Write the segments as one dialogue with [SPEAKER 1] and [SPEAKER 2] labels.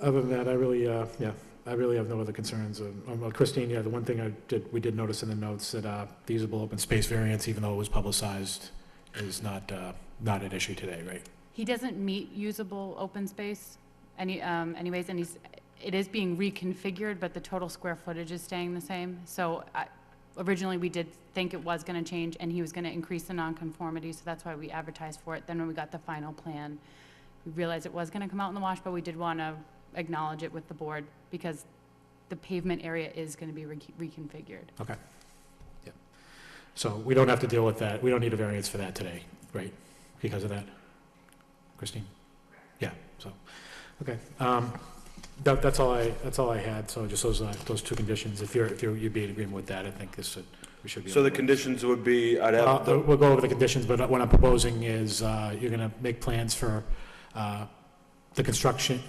[SPEAKER 1] Other than that, I really, uh, yeah, I really have no other concerns. Um, um, well, Christine, yeah, the one thing I did, we did notice in the notes that uh, the usable open space variance, even though it was publicized, is not, uh, not at issue today, right?
[SPEAKER 2] He doesn't meet usable open space any, um, anyways, and he's, it is being reconfigured, but the total square footage is staying the same. So I- originally, we did think it was going to change, and he was going to increase the nonconformity, so that's why we advertised for it. Then when we got the final plan, we realized it was going to come out in the wash, but we did want to acknowledge it with the board because the pavement area is going to be re- reconfigured.
[SPEAKER 1] So we don't have to deal with that, we don't need a variance for that today, right? Because of that? Christine? Yeah, so, okay. Um, That, that's all I, that's all I had, so just those, uh, those two conditions. If you're, if you're, you'd be in agreement with that, I think this, should- we should be.
[SPEAKER 3] So
[SPEAKER 1] able
[SPEAKER 3] the
[SPEAKER 1] to-
[SPEAKER 3] conditions would be, I'd
[SPEAKER 1] Uh,
[SPEAKER 3] have,
[SPEAKER 1] the-
[SPEAKER 4] oh.
[SPEAKER 3] the-
[SPEAKER 1] We'll go over the conditions, but what I'm proposing is uh, you're going to make plans for uh, the construction,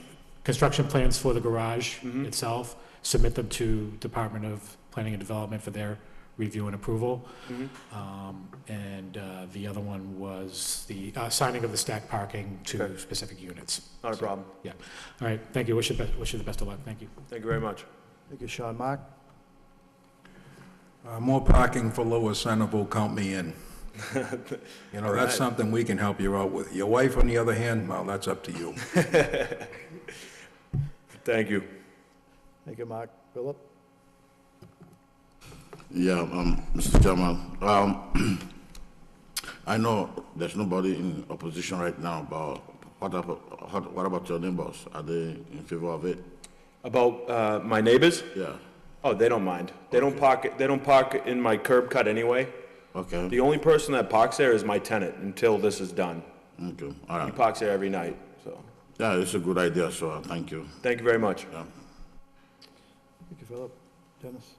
[SPEAKER 1] construction plans for the garage
[SPEAKER 3] Mhm.
[SPEAKER 1] itself, submit them to Department of Planning and Development for their review and approval.
[SPEAKER 3] Mhm.
[SPEAKER 1] Um, And uh, the other one was the uh, signing of the stack parking to
[SPEAKER 3] Okay.
[SPEAKER 1] specific units.
[SPEAKER 3] not a problem.
[SPEAKER 1] All right, thank you. Wish you the best- wish you the best of luck. Thank you.
[SPEAKER 3] Thank you very much.
[SPEAKER 5] Thank you, Sean. Mark?
[SPEAKER 6] Uh, More parking for Lower Centerville, count me in. You know, that's
[SPEAKER 3] Alright.
[SPEAKER 6] something we can help you out with. Your wife, on the other hand, well, that's up to you.
[SPEAKER 3] Thank you.
[SPEAKER 5] Thank you, Mark. Philip?
[SPEAKER 7] Yeah, um, Mr. Chairman, um, I know there's nobody in opposition right now, but what about, what- what about your neighbors? Are they in favor of it?
[SPEAKER 3] About uh, my neighbors?
[SPEAKER 7] Yeah,
[SPEAKER 3] Oh, they don't mind. They don't park, they don't park in my curb cut anyway.
[SPEAKER 7] okay,
[SPEAKER 3] The only person that parks there is my tenant until this is done.
[SPEAKER 7] okay, all
[SPEAKER 3] He
[SPEAKER 7] right.
[SPEAKER 3] parks there every night, so,
[SPEAKER 7] Yeah, it's a good idea, so uh, thank you.
[SPEAKER 3] thank you very much.
[SPEAKER 5] Thank you, Philip. Dennis?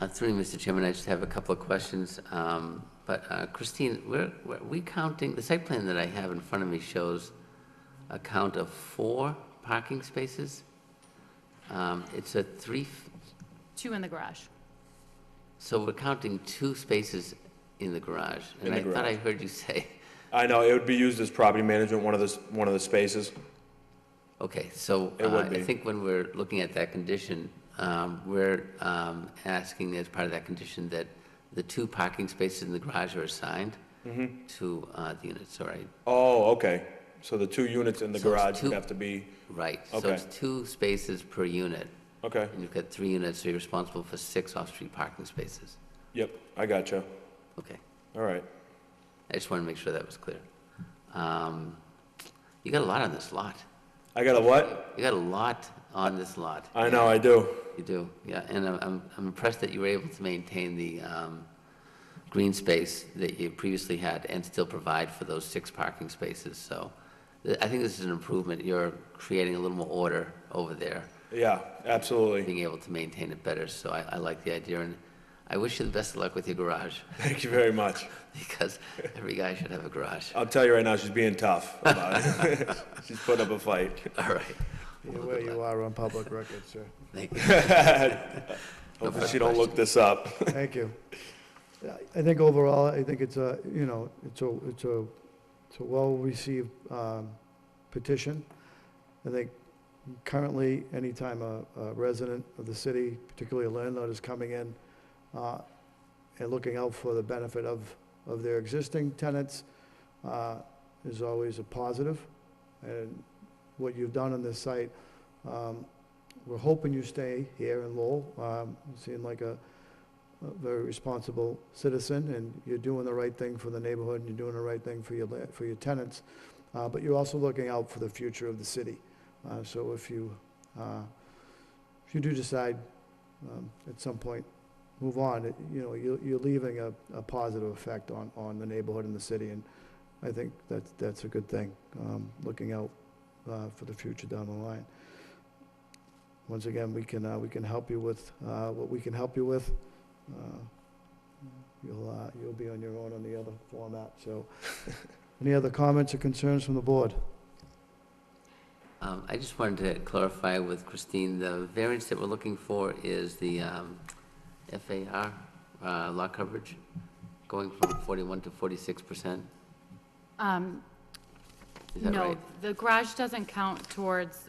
[SPEAKER 4] Uh, Through you, Mr. Chairman, I just have a couple of questions. Um, But uh, Christine, we're, we're- we counting, the site plan that I have in front of me shows a count of four parking spaces. Um, It's a three, f-
[SPEAKER 2] Two in the garage.
[SPEAKER 4] so we're counting two spaces in the garage.
[SPEAKER 3] In the
[SPEAKER 4] And I thought I
[SPEAKER 3] garage.
[SPEAKER 4] heard you say,
[SPEAKER 3] I know, it would be used as property management, one of the, s- one of the spaces.
[SPEAKER 4] okay, so
[SPEAKER 3] It would
[SPEAKER 4] uh, I
[SPEAKER 3] be.
[SPEAKER 4] think when we're looking at that condition, um, we're um, asking as part of that condition that the two parking spaces in the garage are assigned
[SPEAKER 3] Mm-hmm.
[SPEAKER 4] to uh, the units, all right?
[SPEAKER 3] Oh, okay. So the two units in the
[SPEAKER 4] So it's
[SPEAKER 3] garage would
[SPEAKER 4] two-
[SPEAKER 3] have to be,
[SPEAKER 4] Right, so
[SPEAKER 3] Okay.
[SPEAKER 4] it's two spaces per unit,
[SPEAKER 3] okay,
[SPEAKER 4] and you've got three units, so you're responsible for six off-street parking spaces.
[SPEAKER 3] yep, I gotcha.
[SPEAKER 4] Okay,
[SPEAKER 3] All right.
[SPEAKER 4] I just wanted to make sure that was clear. Um, You got a lot on this lot.
[SPEAKER 3] I got a what?
[SPEAKER 4] You got a lot on this lot.
[SPEAKER 3] I know, I do.
[SPEAKER 4] You do, yeah, and I'm- I'm I'm impressed that you were able to maintain the um, green space that you previously had and still provide for those six parking spaces, so th- I think this is an improvement. You're creating a little more order over there.
[SPEAKER 3] Yeah, absolutely.
[SPEAKER 4] being able to maintain it better, so I, I like the idea, and I wish you the best of luck with your garage,
[SPEAKER 3] Thank you very much.
[SPEAKER 4] because every guy should have a garage.
[SPEAKER 3] I'll tell you right now, she's being tough about it. she's putting up a fight.
[SPEAKER 4] All right,
[SPEAKER 5] Be aware you are on public record, sir.
[SPEAKER 4] thank you.
[SPEAKER 3] Hopefully, she don't look this up.
[SPEAKER 5] Thank you. I- I think overall, I think it's a, you know, it's a, it's a, it's a well-received um, petition. I think currently, anytime a a resident of the city, particularly a landlord, is coming in uh, and looking out for the benefit of, of their existing tenants uh, is always a positive. And what you've done on this site, um, we're hoping you stay here in Lowell. Um, You seem like a, a very responsible citizen, and you're doing the right thing for the neighborhood, and you're doing the right thing for your, la- for your tenants, uh, but you're also looking out for the future of the city. Uh, So if you, uh, if you do decide um, at some point, move on, it- you know, you're, you're leaving a, a positive effect on, on the neighborhood and the city, and I think that's, that's a good thing, um, looking out uh, for the future down the line. Once again, we can, uh, we can help you with uh, what we can help you with. Uh, You'll, uh, you'll be on your own on the other format, so. Any other comments or concerns from the board?
[SPEAKER 4] Um, I just wanted to clarify with Christine, the variance that we're looking for is the um, FAR uh, lot coverage, going from 41 to 46 percent,
[SPEAKER 2] Um,
[SPEAKER 4] is that
[SPEAKER 2] No,
[SPEAKER 4] right?
[SPEAKER 2] the garage doesn't count towards